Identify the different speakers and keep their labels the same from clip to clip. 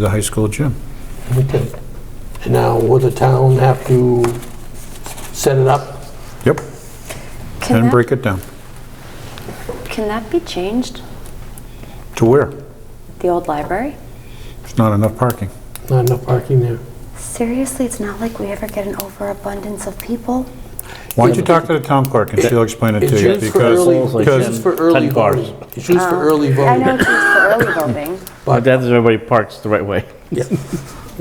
Speaker 1: the high school gym.
Speaker 2: Okay. And now, will the town have to set it up?
Speaker 1: Yep.
Speaker 3: Can
Speaker 1: And
Speaker 3: that,
Speaker 1: break it down.
Speaker 3: can that be changed?
Speaker 1: To where?
Speaker 3: The old library?
Speaker 1: There's not enough parking.
Speaker 2: Not enough parking there.
Speaker 3: Seriously, it's not like we ever get an overabundance of people.
Speaker 1: Why don't you talk to the town clerk and she'll explain it
Speaker 2: It's
Speaker 1: to you?
Speaker 2: used for
Speaker 1: Because,
Speaker 2: early,
Speaker 1: because-
Speaker 2: it's used for early
Speaker 4: Ten cars.
Speaker 2: voting. It's used for early
Speaker 3: I know
Speaker 2: voting.
Speaker 3: it's used for early voting.
Speaker 4: But that is everybody parks the right way.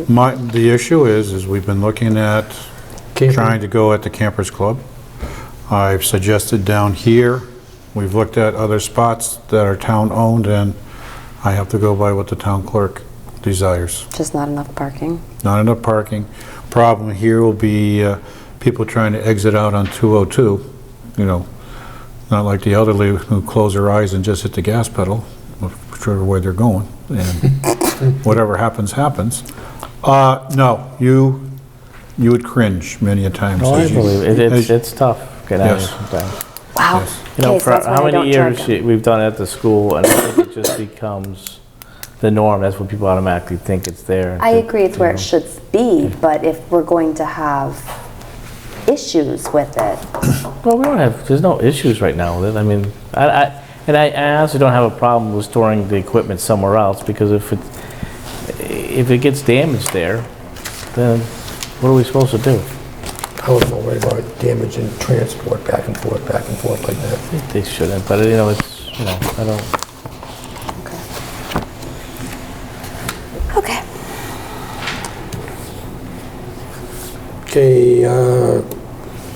Speaker 1: My, the issue is, is we've been looking at
Speaker 2: Camping.
Speaker 1: trying to go at the campers club. I've suggested down here, we've looked at other spots that are town-owned, and I have to go by what the town clerk desires.
Speaker 3: Just not enough parking.
Speaker 1: Not enough parking. Problem here will be uh, people trying to exit out on 202, you know, not like the elderly who close their eyes and just hit the gas pedal, whichever way they're going, and whatever happens, happens. Uh, No, you, you would cringe many a times.
Speaker 4: No, I
Speaker 1: as you-
Speaker 4: believe it.
Speaker 1: as-
Speaker 4: It's, it's tough. Get
Speaker 1: Oh,
Speaker 4: out of here
Speaker 1: Yes.
Speaker 4: sometimes.
Speaker 3: Wow.
Speaker 1: Yes.
Speaker 4: You know,
Speaker 3: Okay, so
Speaker 4: for
Speaker 3: that's why
Speaker 4: how
Speaker 3: I don't
Speaker 4: many
Speaker 3: charge
Speaker 4: years
Speaker 3: them.
Speaker 4: it- we've done it at the school, and I think it just becomes the norm. That's what people automatically think it's there.
Speaker 3: I agree, it's where it should be, but if we're going to have issues with it,
Speaker 4: Well, we don't have, there's no issues right now with it. I mean, I, I, and I I honestly don't have a problem with storing the equipment somewhere else, because if it, if it gets damaged there, then what are we supposed to do?
Speaker 5: I was more worried about damage and transport back and forth, back and forth like that.
Speaker 4: They shouldn't, but you know, it's, you know, I don't,
Speaker 3: okay.
Speaker 2: Okay, uh,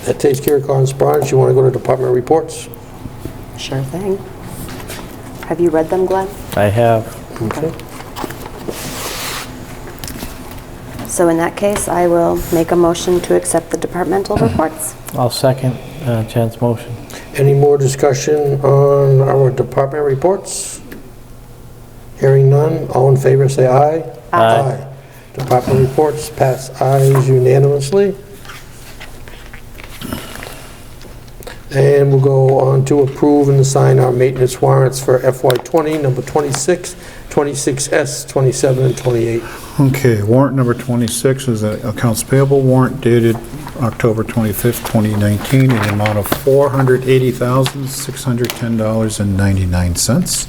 Speaker 2: that takes care of correspondence. You want to go to department reports?
Speaker 3: Sure thing. Have you read them, Glenn?
Speaker 4: I have
Speaker 2: Okay.
Speaker 3: So in that case, I will make a motion to accept the departmental reports.
Speaker 4: I'll second uh, Jen's motion.
Speaker 2: Any more discussion on our department reports? Hearing none, all in favor, say aye.
Speaker 4: Aye.
Speaker 2: Department reports pass ayes unanimously. And we'll go on to approve and assign our maintenance warrants for FY20, number 26, 26S, 27, and 28.
Speaker 1: Okay, warrant number 26 is an accounts payable warrant dated October 25th, 2019, in the amount of $480,610.99.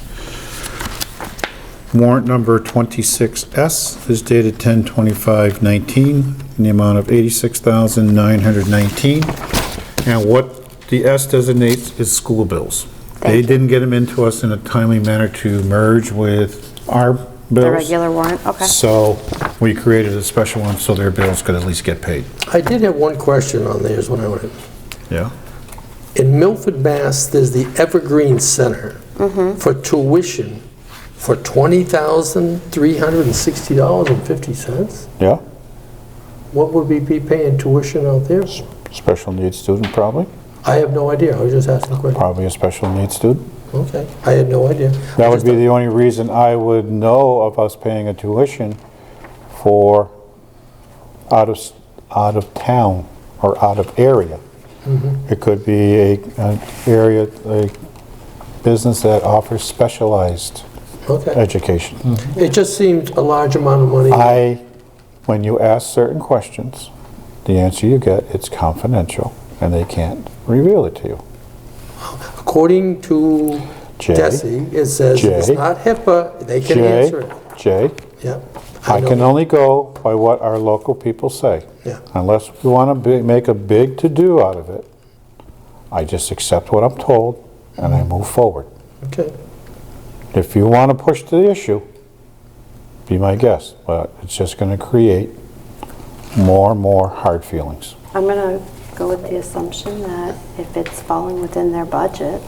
Speaker 1: Warrant number 26S is dated 10/25/19, in the amount of $86,919. And what the S designates is school bills. They
Speaker 3: Thank you.
Speaker 1: didn't get them into us in a timely manner to merge with our bills.
Speaker 3: The regular warrant, okay.
Speaker 1: So we created a special one so their bills could at least get paid.
Speaker 2: I did have one question on theirs when I went in.
Speaker 1: Yeah.
Speaker 2: In Milford, Mass., there's the Evergreen Center for tuition for $20,360.50.
Speaker 1: Yeah,
Speaker 2: What would we be paying tuition out there?
Speaker 1: special needs student probably,
Speaker 2: I have no idea, I was just asking a question.
Speaker 1: probably a special needs student.
Speaker 2: Okay, I had no idea.
Speaker 1: That would be the only reason I would know of us paying a tuition for out of, s- out of town or out of area. It could be a, an area, a business that offers specialized
Speaker 2: Okay,
Speaker 1: education.
Speaker 2: it just seemed a large amount of money.
Speaker 1: I, when you ask certain questions, the answer you get, it's confidential, and they can't reveal it to you.
Speaker 2: According to
Speaker 1: Jay?
Speaker 2: Desi, it says if it's
Speaker 1: Jay?
Speaker 2: not HIPAA, they can
Speaker 1: Jay,
Speaker 2: answer it.
Speaker 1: Jay,
Speaker 2: Yeah.
Speaker 1: I
Speaker 2: know.
Speaker 1: can only go by what our local people say.
Speaker 2: Yeah.
Speaker 1: Unless we want to make a big to-do out of it, I just accept what I'm told, and I move forward.
Speaker 2: Okay,
Speaker 1: If you want to push the issue, be my guest, but it's just going to create more and more hard feelings.
Speaker 3: I'm going to go with the assumption that if it's falling within their budget,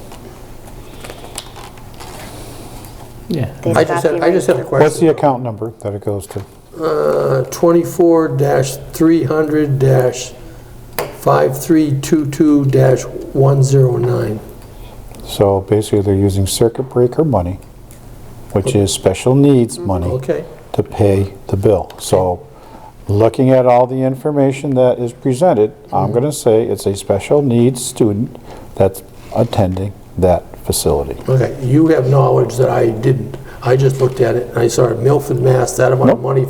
Speaker 4: Yeah.
Speaker 3: they've
Speaker 2: I
Speaker 3: got
Speaker 2: just
Speaker 3: the
Speaker 2: had, I
Speaker 3: right
Speaker 2: just had a
Speaker 3: to-
Speaker 2: question.
Speaker 1: What's the account number that it goes to?
Speaker 2: Uh, 24-300-5322-109.
Speaker 1: So basically, they're using circuit breaker money, which is special needs money,
Speaker 2: Okay,
Speaker 1: to pay the bill. So looking at all the information that is presented, I'm going to say it's a special needs student that's attending that facility.
Speaker 2: okay. You have knowledge that I didn't. I just looked at it and I saw Milford, Mass, that amount of money